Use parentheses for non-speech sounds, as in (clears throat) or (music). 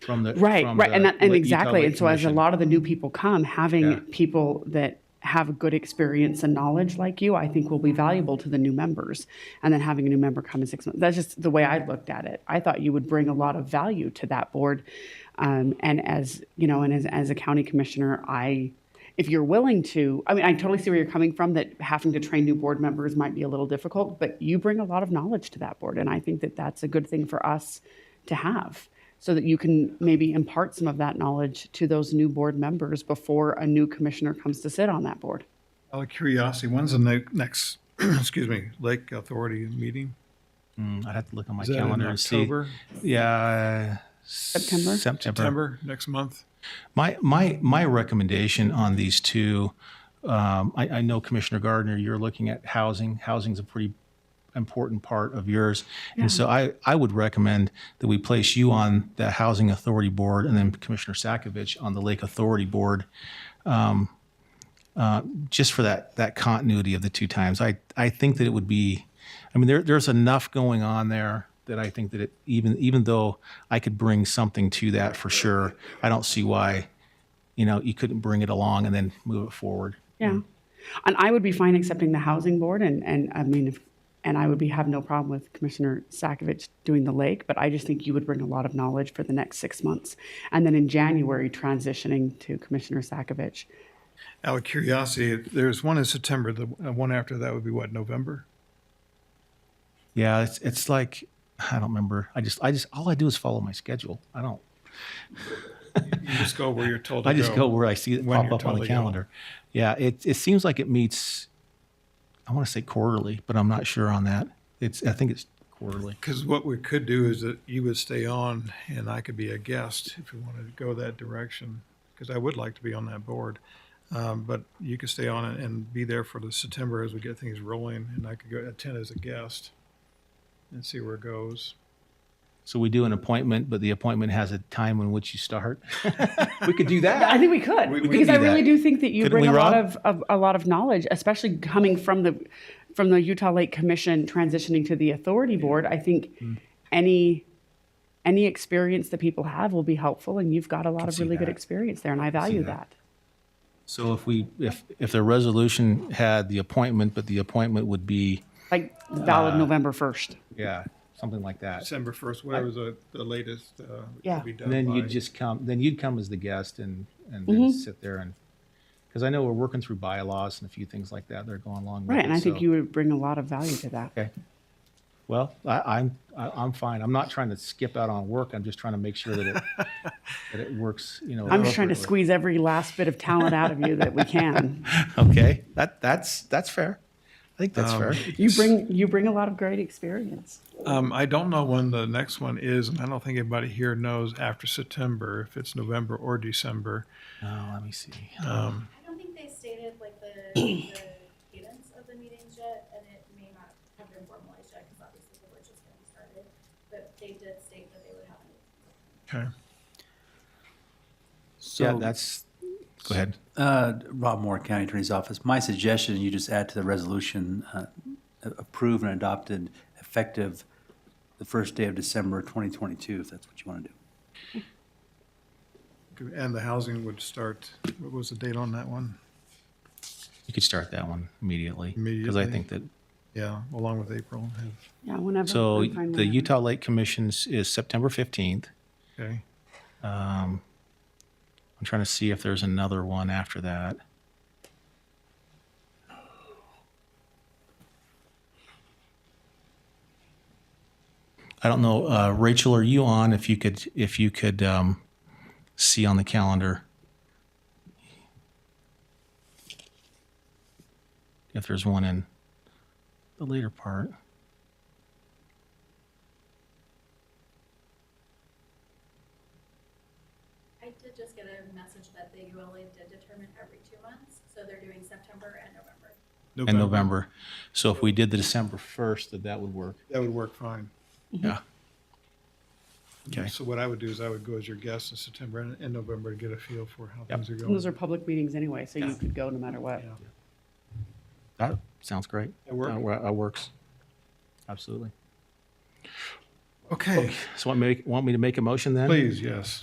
from the. Right, from right, and the that, and Lit exactly, Utah and so as a Commission. lot of the new people come, Yeah. having people that have a good experience and knowledge like you, I think will be valuable to the new members. And then having a new member come in six months, that's just the way I looked at it. I thought you would bring a lot of value to that board. Um, and as, you know, and as, as a county commissioner, I, if you're willing to, I mean, I totally see where you're coming from, that having to train new board members might be a little difficult, but you bring a lot of knowledge to that board. And I think that that's a good thing for us to have so that you can maybe impart some of that knowledge to those new board members before a new commissioner comes to sit on that board. Out of curiosity, when's the ne- next, (clears throat) excuse me, Lake Authority meeting? Mm, I'd have to look on my Is that in calendar and see. October? Yeah. September? September. September, next month? My, my, my recommendation on these two, um, I, I know Commissioner Gardner, you're looking at housing. Housing's a pretty important part of yours. And so I, I would recommend that we place you on the Housing Authority Board and then Commissioner Sakovic on the Lake Authority Board. just for that that continuity of the two times. I I think that it would be, I mean, there there's enough going on there that I think that it even even though I could bring something to that for sure, I don't see why, you know, you couldn't bring it along and then move it forward. Yeah. And I would be fine accepting the housing board and, and I mean, if, and I would be, have no problem with Commissioner Sakovic doing the lake, but I just think you would bring a lot of knowledge for the next six months. And then in January, transitioning to Commissioner Sakovic. Out of curiosity, if there's one in September, the uh, one after that would be what, November? Yeah, it's it's like I don't remember. I just I just all I do is follow my schedule. I don't. You just go where you're told (laughs) to I just go where I see it when pop you're up on told the to go. calendar. Yeah, it it seems like it meets. I want to say quarterly, but I'm not sure on that. It's I think it's quarterly. Because what we could do is that you would stay on and I could be a guest if we wanted to go that direction, because I would like to be on that board. Um, But you could stay on and- and be there for the September as we get things rolling, and I could go attend as a guest and see where it goes. So we do an appointment, but the appointment has a time in which you start. we could do (laughs) I that. think we could we because could I do really that. do think that you Couldn't bring we, a lot Rob? of, of a lot of knowledge, especially coming from the from the Utah Lake Commission transitioning to the authority board. I think Hmm. any any experience that people have will be helpful, and you've got a lot of see really good that. experience there, and I value that. that. So if we if if the resolution had the appointment, but the appointment would be Like Uh, valid November first. yeah something like that. December first, whatever the, the latest, uh, Yeah. could be done And then by- you'd just come. Then you'd come as the guest and and then Mm-hmm. sit there and because I know we're working through bylaws and a few things like that. They're going along with Right, and it, I think so- you would bring a lot of value to that. Okay. Well, I, I'm I, I'm fine. I'm not trying to skip out on work. I'm just trying to make sure that it (laughs) that it works. You know, I'm just trying to appropriately. squeeze every last bit of talent out of you that (laughs) we can. Okay, that that's that's fair. I think that's fair. You bring you bring a lot of great experience. Um, I don't know when the next one is, and I don't think anybody here knows after September, if it's November or December. Oh, let me see. Um, I don't think they stated like the, the cadence of the meetings yet, and it may not have been formalized yet, because obviously the board just getting started. But they did state that they would have it okay. yeah, So, that's. Go ahead. uh, Rob Moore, County Attorney's Office, my suggestion, you just add to the resolution, uh, approved and adopted effective the first day of December 2022, if that's what you want to do. And the housing would start, what was the date on that one? You could start that one immediately because I Immediately. think that. Yeah, along with April. have- Yeah, whenever. So I'm fine the whenever. Utah Lake Commission's is September fifteenth. Okay. I'm trying to see if there's another one after that. I don't know, uh, Rachel, are you on? If you could, if you could um, see on the calendar if there's one in the later part. I did just get a message that the ULA did determine every two months, so they're doing September and November. In November. So if we did the December 1st, that that would work. That would work fine. Yeah. Okay. So what I would do is I would go as your guest in September and, and November to get a feel for how things are And Those going. are public meetings anyway, so you could go no matter what. Yeah. That sounds great. That work? That wor- That works. Absolutely. Okay, So want me, want me to make a motion then? please, yes.